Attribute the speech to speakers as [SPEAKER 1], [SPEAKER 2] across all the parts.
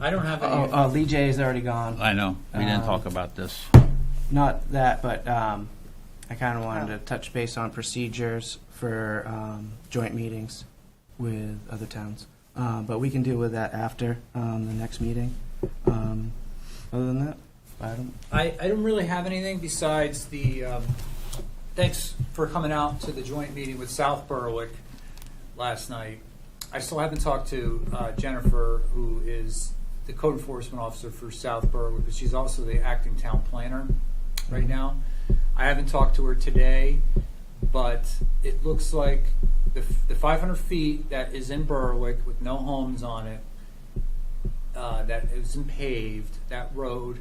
[SPEAKER 1] I don't have
[SPEAKER 2] Oh,
[SPEAKER 1] any.
[SPEAKER 2] oh, Lee J is already gone.
[SPEAKER 3] I know, we didn't
[SPEAKER 2] Um,
[SPEAKER 3] talk about this.
[SPEAKER 2] Not that, but um, I kind of
[SPEAKER 4] Oh.
[SPEAKER 2] wanted to touch base on procedures for um, joint meetings with other towns. Uh, But we can deal with that after um, the next meeting. Um, Other than that, I don't,
[SPEAKER 1] I, I don't really have anything besides the, um, thanks for coming out to the joint meeting with South Berwick last night. I still haven't talked to uh, Jennifer, who is the code enforcement officer for South Berwick, but she's also the acting town planner right now. I haven't talked to her today, but it looks like the, f- the 500 feet that is in Berwick with no homes on it, uh, that isn't paved, that road,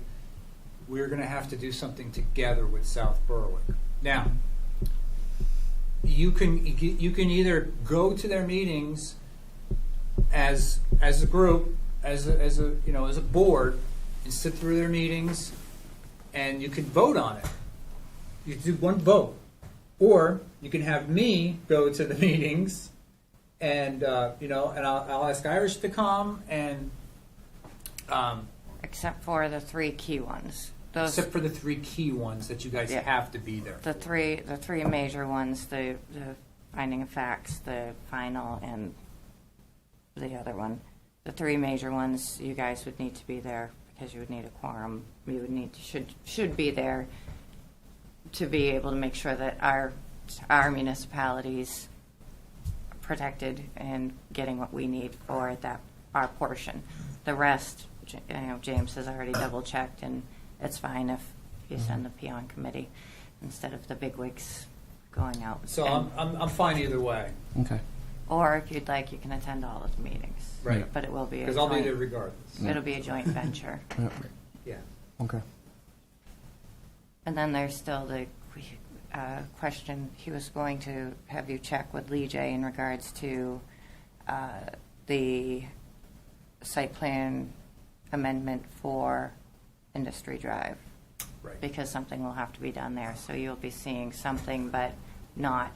[SPEAKER 1] we're going to have to do something together with South Berwick. Now, you can you can either go to their meetings as as a group, as a, as a you know as a board, and sit through their meetings, and you could vote on it. You do one vote, or you can have me go to the meetings, and uh, you know, and I'll, I'll ask Irish to come, and um,
[SPEAKER 4] except for the three key ones. Those,
[SPEAKER 1] except for the three key ones that you guys
[SPEAKER 4] Yeah.
[SPEAKER 1] have to be there.
[SPEAKER 4] the three, the three major ones, the, the finding of facts, the final, and the other one. The three major ones, you guys would need to be there because you would need a quorum. You would need, should, should be there to be able to make sure that our, our municipalities protected and getting what we need for that, our portion. The rest, J- you know, James has already double checked and it's fine if you send the peon committee instead of the bigwigs going out.
[SPEAKER 1] So
[SPEAKER 4] And-
[SPEAKER 1] I'm, I'm, I'm fine either way.
[SPEAKER 2] okay.
[SPEAKER 4] Or if you'd like, you can attend all of the meetings.
[SPEAKER 1] Right.
[SPEAKER 4] But it will be a
[SPEAKER 1] Because I'll be there
[SPEAKER 4] joint,
[SPEAKER 1] regardless.
[SPEAKER 4] it'll be a joint venture.
[SPEAKER 2] Yeah,
[SPEAKER 1] Yeah.
[SPEAKER 2] Uh, Okay.
[SPEAKER 4] And then there's still the uh, question, he was going to have you check with Lee J in regards to uh, the site plan amendment for Industry Drive,
[SPEAKER 1] Right.
[SPEAKER 4] because something will have to be done there. So you'll be seeing something, but not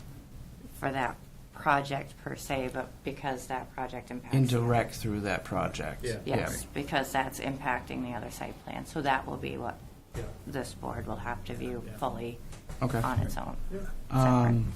[SPEAKER 4] for that project per se, but because that project impacts.
[SPEAKER 2] Indirect through that project.
[SPEAKER 1] Yeah.
[SPEAKER 4] Yes, because that's impacting the other site plan. So that will be what
[SPEAKER 1] Yeah.
[SPEAKER 4] this board will have to view
[SPEAKER 1] Yeah.
[SPEAKER 4] fully
[SPEAKER 2] Okay.
[SPEAKER 4] on its own.
[SPEAKER 2] Um,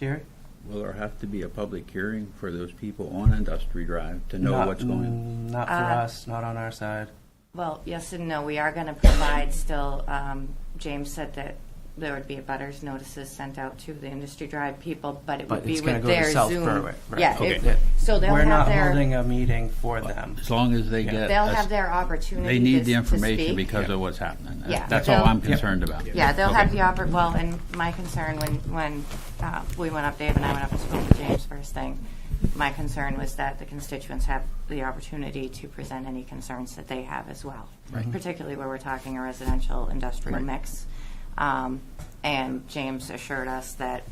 [SPEAKER 2] Jerry?
[SPEAKER 3] Will there have to be a public hearing for those people on Industry Drive to know
[SPEAKER 2] Not-
[SPEAKER 3] what's going on?
[SPEAKER 2] mm, Not for
[SPEAKER 4] Uh,
[SPEAKER 2] us, not on our side.
[SPEAKER 4] Well, yes and no, we are going to provide still, um, James said that there would be butters notices sent out to the Industry Drive people, but it
[SPEAKER 2] But
[SPEAKER 4] would be
[SPEAKER 2] it's gonna
[SPEAKER 4] with
[SPEAKER 2] go to
[SPEAKER 4] their
[SPEAKER 2] South
[SPEAKER 4] Zoom.
[SPEAKER 2] Berwick, right.
[SPEAKER 4] Yeah,
[SPEAKER 3] Okay.
[SPEAKER 4] it-
[SPEAKER 3] Yeah.
[SPEAKER 4] so they'll
[SPEAKER 2] We're
[SPEAKER 4] have
[SPEAKER 2] not
[SPEAKER 4] their,
[SPEAKER 2] holding a meeting for them.
[SPEAKER 3] As long as they get.
[SPEAKER 4] they'll
[SPEAKER 3] a-
[SPEAKER 4] have their opportunity
[SPEAKER 3] They need
[SPEAKER 4] to-
[SPEAKER 3] the
[SPEAKER 4] to
[SPEAKER 3] information
[SPEAKER 4] speak.
[SPEAKER 3] because of what's happening. That-
[SPEAKER 4] Yeah.
[SPEAKER 3] That's all
[SPEAKER 4] They'll-
[SPEAKER 3] I'm concerned about.
[SPEAKER 4] yeah, they'll have
[SPEAKER 3] Okay.
[SPEAKER 4] the oppor, well, and my concern when, when uh, we went up, Dave and I went up and spoke to James first thing, my concern was that the constituents have the opportunity to present any concerns that they have as well. Particularly where we're talking a residential industrial mix. Um, And James assured us that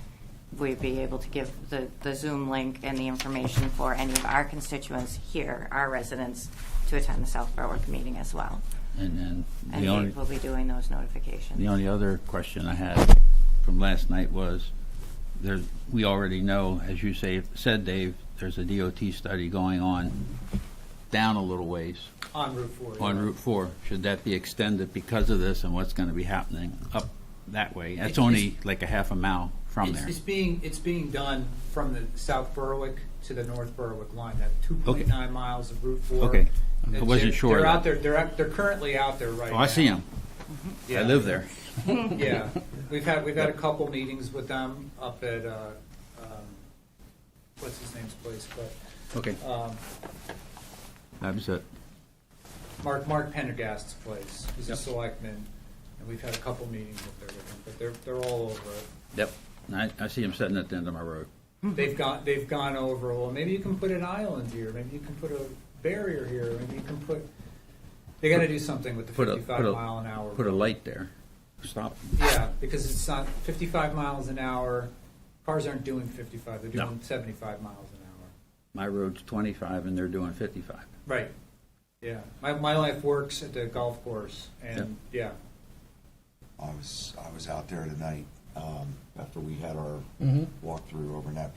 [SPEAKER 4] we'd be able to give the, the Zoom link and the information for any of our constituents here, our residents, to attend the South Berwick meeting as well.
[SPEAKER 3] And then
[SPEAKER 4] And
[SPEAKER 3] the only,
[SPEAKER 4] Dave will be doing those notifications.
[SPEAKER 3] the only other question I had from last night was, there, we already know, as you say, said, Dave, there's a DOT study going on down a little ways.
[SPEAKER 1] On Route 4.
[SPEAKER 3] on
[SPEAKER 1] yeah.
[SPEAKER 3] Route 4, should that be extended because of this and what's going to be happening up that way? That's
[SPEAKER 1] It's-
[SPEAKER 3] only like a half a mile from
[SPEAKER 1] It's,
[SPEAKER 3] there.
[SPEAKER 1] it's being, it's being done from the South Berwick to the North Berwick line, that 2.9 miles of Route 4.
[SPEAKER 3] Okay.
[SPEAKER 1] That
[SPEAKER 3] I wasn't
[SPEAKER 1] they're-
[SPEAKER 3] sure
[SPEAKER 1] They're
[SPEAKER 3] of that.
[SPEAKER 1] out there, they're, out- they're currently out there right
[SPEAKER 3] Oh,
[SPEAKER 1] now.
[SPEAKER 3] I see them. I
[SPEAKER 1] Yeah.
[SPEAKER 3] live there.
[SPEAKER 1] Yeah. We've had, we've had a couple meetings with them up at, uh, um, what's his name's place,
[SPEAKER 3] Okay,
[SPEAKER 1] but um,
[SPEAKER 3] that was it.
[SPEAKER 1] Mark, Mark Pendergast's place. He's a
[SPEAKER 3] Yep.
[SPEAKER 1] selectman, and we've had a couple meetings up there with him, but they're, they're all over it.
[SPEAKER 3] Yep. I, I see them sitting at the end of my road.
[SPEAKER 1] They've got, they've gone over, well, maybe you can put an island here, maybe you can put a barrier here, maybe you can put, they gotta do something with the
[SPEAKER 3] Put a-
[SPEAKER 1] fifty-five
[SPEAKER 3] put a-
[SPEAKER 1] mile an hour.
[SPEAKER 3] Put a light there. Stop.
[SPEAKER 1] Yeah, because it's not, fifty-five miles an hour, cars aren't doing fifty-five, they're
[SPEAKER 3] No.
[SPEAKER 1] doing seventy-five miles an hour.
[SPEAKER 3] My road's 25 and they're doing 55.
[SPEAKER 1] Right. Yeah, my, my life works at the golf course, and, yeah,
[SPEAKER 5] I was, I was out there tonight, um, after we had our walkthrough over in that